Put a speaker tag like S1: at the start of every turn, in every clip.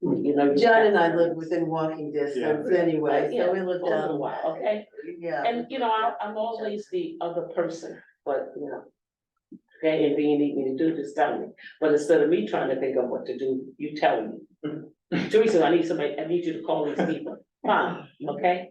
S1: you know. you
S2: John
S1: have
S2: and I live
S1: parents.
S2: within walking distance
S3: Yeah.
S2: anyway,
S1: Yeah,
S2: so we live
S1: both
S2: down the
S1: of
S2: way.
S1: us, Okay,
S2: Yeah,
S1: and you know, I- I'm always the other person, but you know. Okay, and you need me to do this, tell me, but instead of me trying to think of what to do, you tell me. Teresa, I need somebody, I need you to call these people, fine, okay?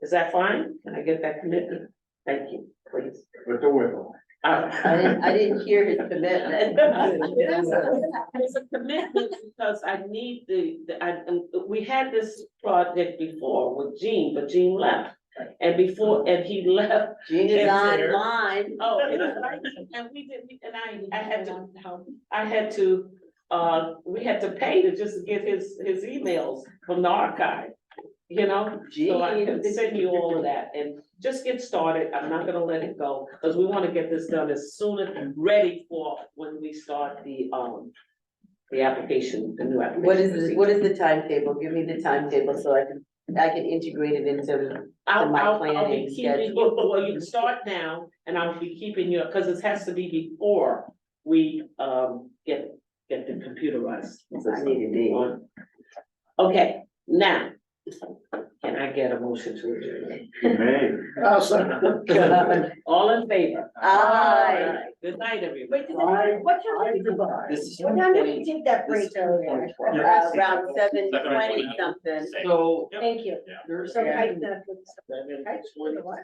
S1: Is that fine? Can I get that commitment? Thank you, please.
S3: With the wiggle.
S1: All
S2: I
S1: right.
S2: didn't, I didn't hear his commitment.
S1: It's a- it's a commitment because I need the, the, I, and we had this project before with Gene, but Gene left. And before, and he left,
S2: Gene is
S1: It's
S3: there.
S2: online.
S1: oh, and I- and we did, we- and I, I had to, I had to, uh, we had to pay to just get his, his emails from the archive. You know, so I can
S2: Gene.
S1: send you all of that and just get started. I'm not gonna let it go, because we wanna get this done as soon as ready for when we start the, um, the application, the new application.
S2: What is, the- what is the timetable? Give me the timetable so I can, I can integrate it into,
S1: I'll,
S2: my
S1: I'll, I'll
S2: planning
S1: be keeping,
S2: schedule?
S1: you- well, you can start now, and I'll be keeping you, because it has to be before we, um, get, get the computerized.
S2: I need a date.
S1: on. Okay, now, can I get a motion to adjourn?
S3: May.
S1: All in favor?
S2: Aye.
S1: Alright, Good night, everybody.
S4: Wait, did that, what time did we,
S3: Goodbye.
S4: what time did we take that break earlier?
S2: uh, around seven
S3: Seven
S2: twenty
S3: twenty.
S2: something.
S4: Thank you. So I,
S1: Seven,
S4: I-
S1: twenty,
S4: what?